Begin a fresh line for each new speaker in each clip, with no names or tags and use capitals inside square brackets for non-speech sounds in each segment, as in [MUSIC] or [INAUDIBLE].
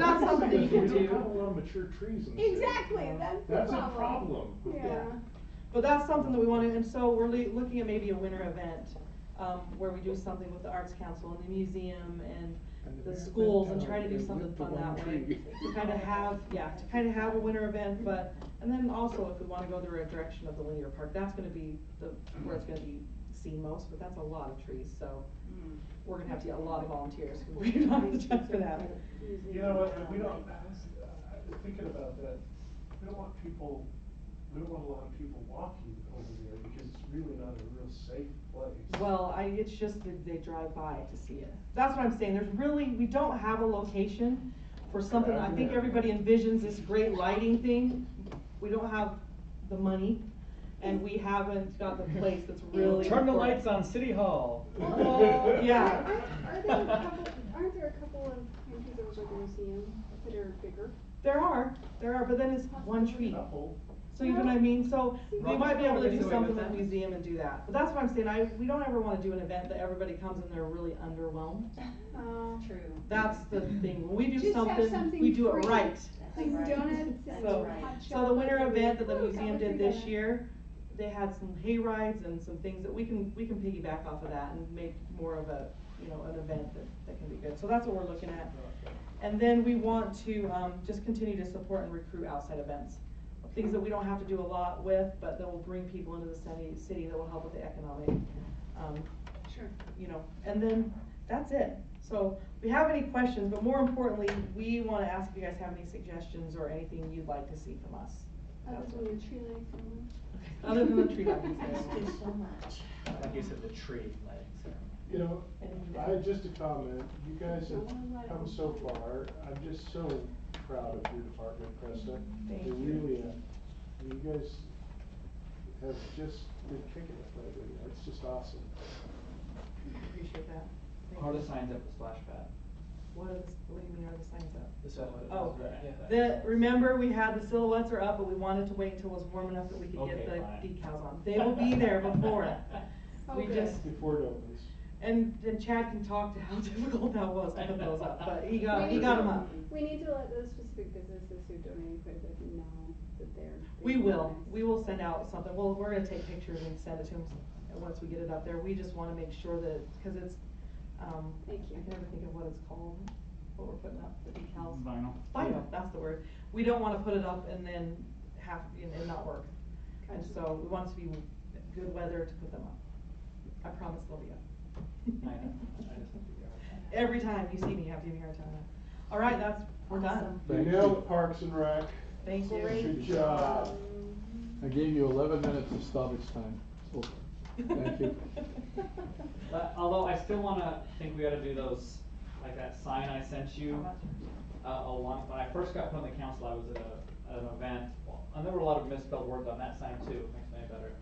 somebody
Because we
can
don't have a
do.
lot of mature trees in the city.
Exactly, that's the
That's a
problem.
problem.
Yeah.
But that's something that we wanna, and so we're le- looking at maybe a winter event, um, where we do something with the arts council and the museum and
And the
the
event
schools and
down
try to do
there
something
with the
fun
one
that way.
tree.
To kinda have, yeah, to kinda have a winter event, but, and then also if we wanna go the right direction of the linear park, that's gonna be the, where it's gonna be seen most, but that's a lot of trees, so. We're gonna have to get a lot of volunteers who we don't have the time for that.
You know, what, and we don't, I was thinking about that, we don't want people, we don't want a lot of people walking over there because it's really not a real safe place.
Well, I, it's just that they drive by to see it. That's what I'm saying, there's really, we don't have a location for something, I think everybody envisions this great lighting thing. We don't have the money, and we haven't got the place
[LAUGHS]
that's really.
Turn the
for it.
lights on City Hall.
Well,
[LAUGHS] Yeah.
Aren't there a couple, aren't there a couple of countries over at the museum that are bigger?
There are, there are, but then it's one tree.
Couple.
So you know what I mean, so we
Right.
might be able to
Gets
do
away
something
with
with the
that.
museum and do that. But that's what I'm saying, I, we don't ever wanna do an event that everybody comes and they're really underwhelmed.
Uh,
True.
That's the thing, when we do
Just have
something,
something
we do it right.
free. Like
Right.
donuts and
So-
hot
So the winter
chocolate.
event that the
Ooh,
museum
chocolate
did
free
this
donut.
year, they had some hay rides and some things that we can, we can piggyback off of that and make more of a, you know, an event that, that can be good. So that's what we're looking at. And then we want to, um, just continue to support and recruit outside events. Things that we don't have to do a lot with, but that will bring people into the city, city that will help with the economic, um,
Sure.
you know, and then that's it. So we have any questions, but more importantly, we wanna ask if you guys have any suggestions or anything you'd like to see from us.
Other than the tree lights and.
Other than the [LAUGHS] tree
[LAUGHS]
lighting
There's
ceremony.
so much.
Like you said, the tree lighting ceremony.
You know,
And-
I, just a comment, you guys have come so far, I'm just so proud of your department, Krista.
Thank
You
you.
really, uh, you guys have just been kicking it lately, it's just awesome.
Appreciate that. Thank
Are
you.
the signs up the splash pad?
What is, what do you mean are the signs up?
Is that what it
Oh,
was? Right, yeah.
the, remember, we had the silhouettes are up, but we wanted to wait until it was warm enough that we could
Okay,
get the
fine.
decals on. They will be there before
[LAUGHS]
it.
Oh,
We
good.
just,
Before it opens.
and, and Chad can talk to how [LAUGHS] difficult that was to put those up, but he got,
We
he
need
got
to-
them up.
We need to let those specific businesses who donated quite a bit know that they're.
We
they're
will,
nice.
we will send out something, well, we're gonna take pictures and send it to them, once we get it up there, we just wanna make sure that, cause it's, um, I
Thank you.
can never think of what it's called, what we're putting up, the decals.
Vinyl.
Vinyl, that's the word, we don't wanna put it up and then have, and and not work, and
Gotcha.
so we want it to be good weather to put them up. I promise they'll be
I
up.
know, I just have to go.
Every time you see me, you have to give me a hard time, all right, that's, we're done,
Awesome.
You
Thank
nailed
you.
it, Parks and Rec.
thank you.
Good job.
I gave you eleven minutes of stoppage time. Over. Thank you.
[LAUGHS]
But although I still wanna, think we ought to do those, like that sign I sent you. uh, a long, when I first got put on the council, I was at a, at an event, and there were a lot of misspelled words on that sign too, makes me better.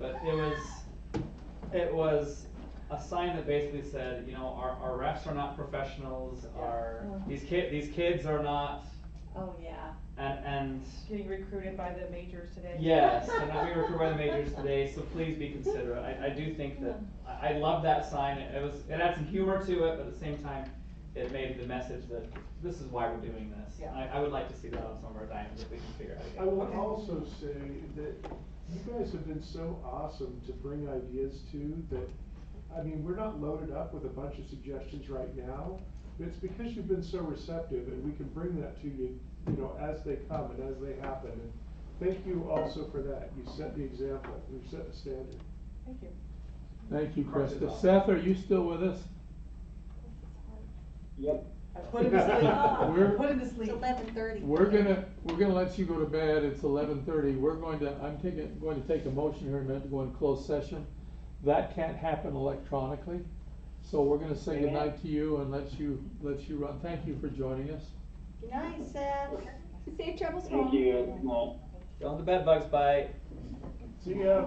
But it was, it was a sign that basically said, you know, our, our refs are not professionals,
Yeah.
our,
Mm.
these ki- these kids are not,
Oh, yeah.
and, and,
Getting recruited by the majors today.
yes, and we were recruited by the majors today, so please be considerate, I, I do think that, I, I love that sign, it it was, it had some humor to it, but at the same time, it made the message that this is why we're doing this.
Yeah.
I, I would like to see that on some of our diamonds if we can figure out. how to get
I will
it.
also say that you guys have been so awesome to bring ideas to that, I mean, we're not loaded up with a bunch of suggestions right now. But it's because you've been so receptive and we can bring that to you, you know, as they come and as they happen. And Thank you also for that. You set the example. You've set the standard.
Thank you.
Thank you,
Parks is
Krista.
awesome.
Seth, are you still with us?
I put him to sleep. I
We're-
put him to sleep.
eleven thirty.
We're gonna, we're gonna let you go to bed, it's eleven thirty, we're going to, I'm taking, going to take a motion here in a minute to go in closed session. That can't happen electronically, so we're gonna say
Amen.
goodnight to you and let you, let you run, thank you for joining us.
Good night, Seth.
Safe travels home.
Thank you, good night.
Don't the bed bugs bite.
See ya.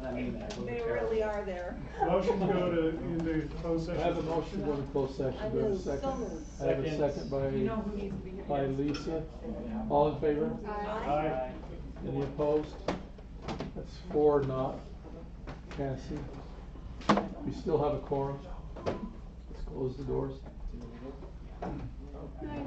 And I mean that. those
They
are terrible.
really are there.
Motion to go to, into closed
I
session.
have a motion to go into closed
I
session, do I have a
moved,
second?
so moved.
I have a
Second.
second
You know
by,
who needs to be here.
by
Yes.
Lisa, all in favor?
Aye.
Aye.
Any opposed? That's four not passing. We still have a quorum. Let's close the doors.
No, I